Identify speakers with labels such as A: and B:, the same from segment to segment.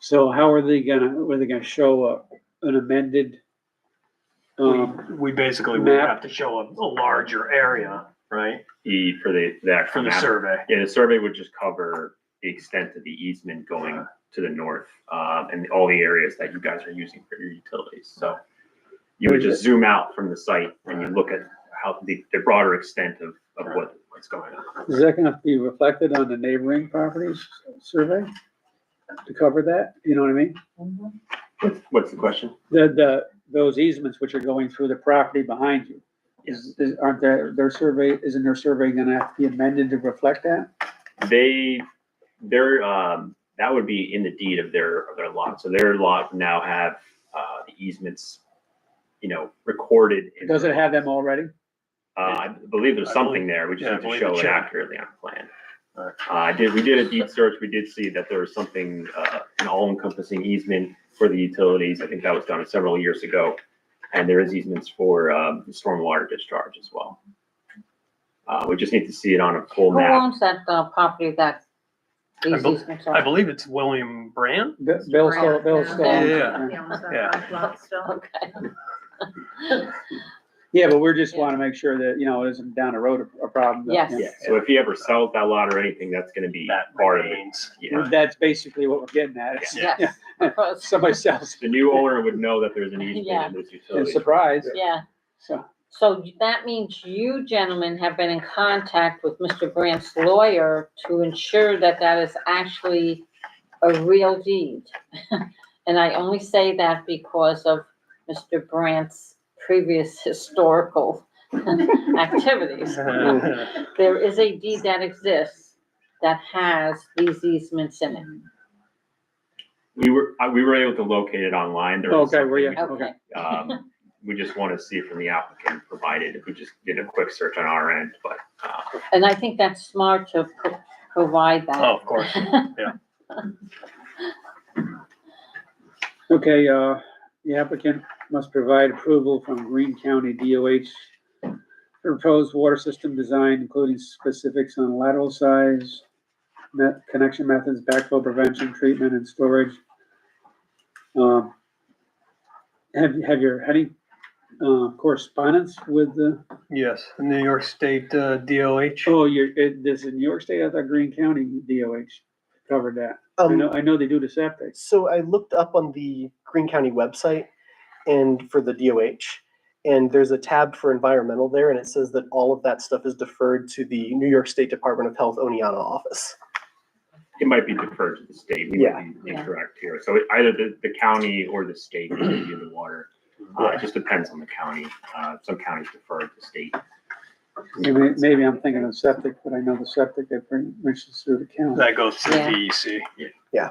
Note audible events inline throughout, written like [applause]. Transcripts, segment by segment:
A: So how are they gonna, were they gonna show a, an amended?
B: We,
A: Um,
B: we basically would
A: map.
B: have to show a, a larger area, right,
C: E for the, the
B: for
C: actual
B: the
C: map.
B: survey.
C: Yeah, the survey would just cover the extent of the easement going to the north, um, and all the areas that you guys are using for your utilities, so. You would just zoom out from the site and you look at how the, the broader extent of, of what, what's going on.
A: is that gonna be reflected on the neighboring properties survey? To cover that, you know what I mean?
C: What's, what's the question?
A: The, the, those easements which are going through the property behind you. Is, is, aren't their, their survey, isn't their survey gonna have to be amended to reflect that?
C: They, their, um, that would be in the deed of their, of their lot, so their lot now have, uh, the easements, you know, recorded. in-
A: Does it have them already?
C: Uh, I believe there's
B: I
C: something there, we just
B: yeah, I
C: need to
B: believe
C: show
B: it's
C: it
B: shown.
C: accurately on plan. Uh,
B: Alright.
C: I did, we did a deep search, we did see that there was something, uh, an all-encompassing easement for the utilities, I think that was done several years ago. And there is easements for, um, stormwater discharge as well. Uh, we just need to see it on a full
D: Who
C: map,
D: owns that uh, property that
B: I
D: these
B: bel-
D: easements
B: I
D: [laughs] are?
B: believe it's William Brand.
A: Bill Bill's still, Bill's still.
D: Yeah,
B: yeah, Yeah.
D: Okay.
A: Yeah, but we're just wanna make sure that, you know, it isn't down the road a- a problem. that-
D: Yes.
C: yeah, so if he ever sells that lot or anything, that's gonna be
B: That
C: part of it,
B: remains. [laughs]
C: yeah.
A: That's basically what we're getting at. is-
B: Yeah.
D: Yes, [laughs] of course.
A: Somebody sells,
C: The new owner would know that there's an easement
D: Oh, Yeah.
C: in this utility.
A: it's surprise,
D: Yeah,
A: so,
D: so that means you gentlemen have been in contact with Mr. Brandt's lawyer to ensure that that is actually a real deed. [laughs] And I only say that because of Mr. Brandt's previous historical [laughs] activities.
B: Oh,
D: there is a deed that exists that has these easements in it.
C: We were, I- we were able to locate it online, there was
A: Okay, were
C: something
A: you?
C: we
D: Okay, [laughs]
C: Um, we just want to see from the applicant provided, if we just did a quick search on our end, but, uh,
D: and I think that's smart to pro- provide that.
B: Oh, of course.
A: okay, uh, the applicant must provide approval from Green County DOH for proposed water system design, including specifics on lateral size, net connection methods, backflow prevention, treatment and storage. Um, have, have your, any, uh, correspondence with the,
E: Yes, New York State uh, DOH.
A: oh, you're, it, this in New York State, I thought Green County DOH covered that. I know,
F: Um,
A: I know they do the septic.
F: so I looked up on the Green County website and for the DOH, and there's a tab for environmental there, and it says that all of that stuff is deferred to the New York State Department of Health Oniana office.
C: it might be deferred to the state. We might be
D: Yeah.
C: incorrect here. So it- either the, the county or the state will give you the water. Uh, it just depends on the county. Uh, some counties defer to the state.
A: Maybe, maybe I'm thinking of septic, but I know the septic that brings, reaches through the county.
B: That goes through
D: Yeah.
B: DEC.
C: Yeah.
F: Yeah.
B: E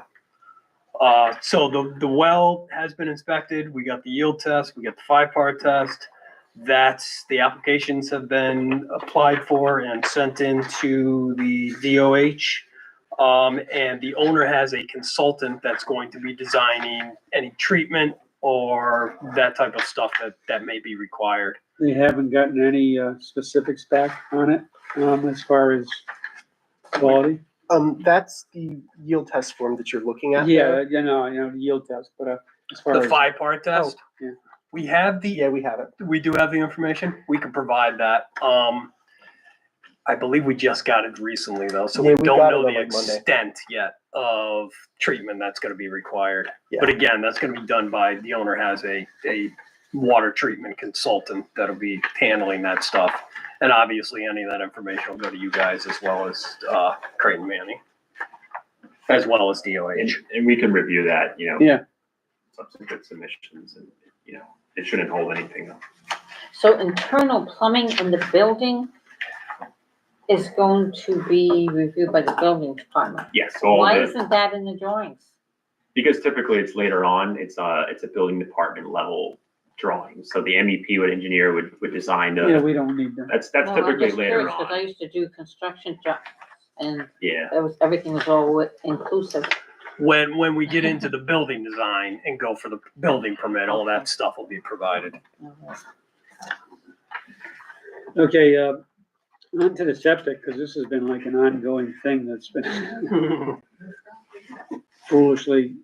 B: Uh, so the, the well has been inspected. We got the yield test, we got the five-part test. That's, the applications have been applied for and sent in to the DOH. Um, and the owner has a consultant that's going to be designing any treatment or that type of stuff that, that may be required.
A: They haven't gotten any, uh, specifics back on it, um, as far as quality.
F: Um, that's the yield test form that you're looking at.
A: Yeah,
F: there.
A: you know, you know, yield test, but, uh, as far
B: The
A: as,
B: five-part test.
A: yeah.
B: We have the
F: Yeah, we have it.
B: we do have the information. We can provide that. Um, I believe we just got it recently though, so we
F: Yeah, we
B: don't
F: got
B: know
F: it on,
B: the
F: like, Monday.
B: extent yet of treatment that's gonna be required.
F: Yeah.
B: But again, that's gonna be done by, the owner has a, a water treatment consultant that'll be handling that stuff. And obviously, any of that information will go to you guys as well as, uh, Creighton Manning, as well as
C: And,
B: DOH.
C: and we can review that, you know.
A: Yeah.
C: Subsequent submissions and, you know, it shouldn't hold anything up.
D: [laughs] so internal plumbing in the building is going to be reviewed by the building department.
C: Yes, all
D: Why
C: the,
D: isn't that in the drawings?
C: because typically it's later on, it's a, it's a building department level drawing. So the MEP would engineer would, would design the.
A: yeah, we don't need that.
C: That's, that's
D: Well, I'm
C: typically
D: just
C: later
D: curious, 'cause I
C: on,
D: used to do construction jobs and
C: yeah.
D: it was, everything was all wi- inclusive.
B: When, when we get into the building design and go for the building permit, all that stuff will be provided.
A: Okay, uh, onto the septic, cause this has been like an ongoing thing that's been [laughs] foolishly